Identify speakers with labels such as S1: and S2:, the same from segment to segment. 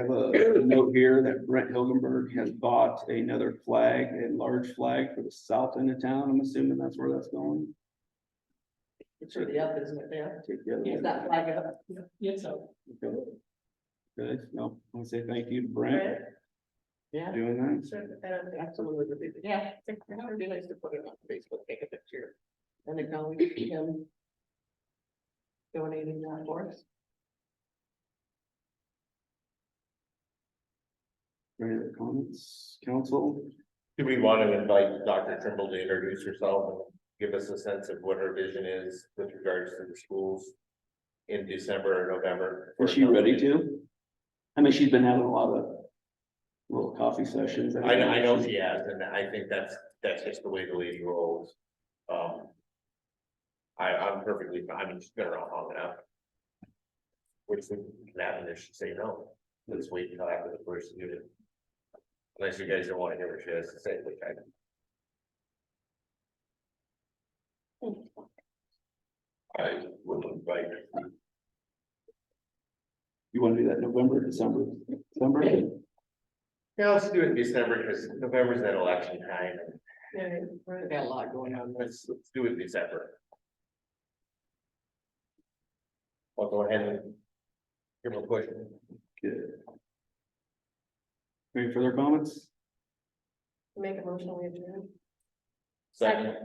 S1: I have a note here that Brent Hilgenberg has bought another flag, a large flag for the south end of town. I'm assuming that's where that's going.
S2: It's really up, isn't it, yeah?
S1: Take the other
S2: Is
S1: one.
S2: that flag up? Yes,
S1: Go. Good. No, I want to say thank you to Brent for
S2: Yeah.
S1: doing that.
S2: Absolutely. Yeah. How would be nice to put it on Facebook, take a picture. And acknowledge him. Donating that for us.
S1: Any other comments, council?
S3: Do we want to invite Dr. Trimble to introduce herself and give us a sense of what her vision is with regards to the schools? In December or November?
S1: Is she ready to? I mean, she's been having a lot of little coffee sessions.
S3: I, I know she has, and I think that's, that's just the way the lady rolls. Um. I, I'm perfectly, fine. I mean, she's been around long enough. Which we can happen if she say no, let's wait until after the first unit. Unless you guys don't want to hear what she has to say, which I I would invite.
S1: You want to do that November, December, December?
S3: Yeah, let's do it in December, because November's that election time, and
S2: Yeah, we got a lot going on.
S3: let's, let's do it in December. I'll go ahead and. Give them a push.
S1: Good. Any further comments?
S2: Make a motion, we adjourn.
S3: Second.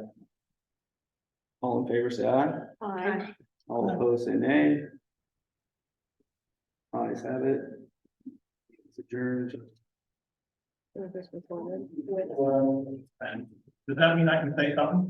S1: All in favor, say aye.
S2: Aye.
S1: All opposed, say nay. Ayes have it. It's adjourned.
S2: This was one, with
S1: And
S4: Does that mean I can say something?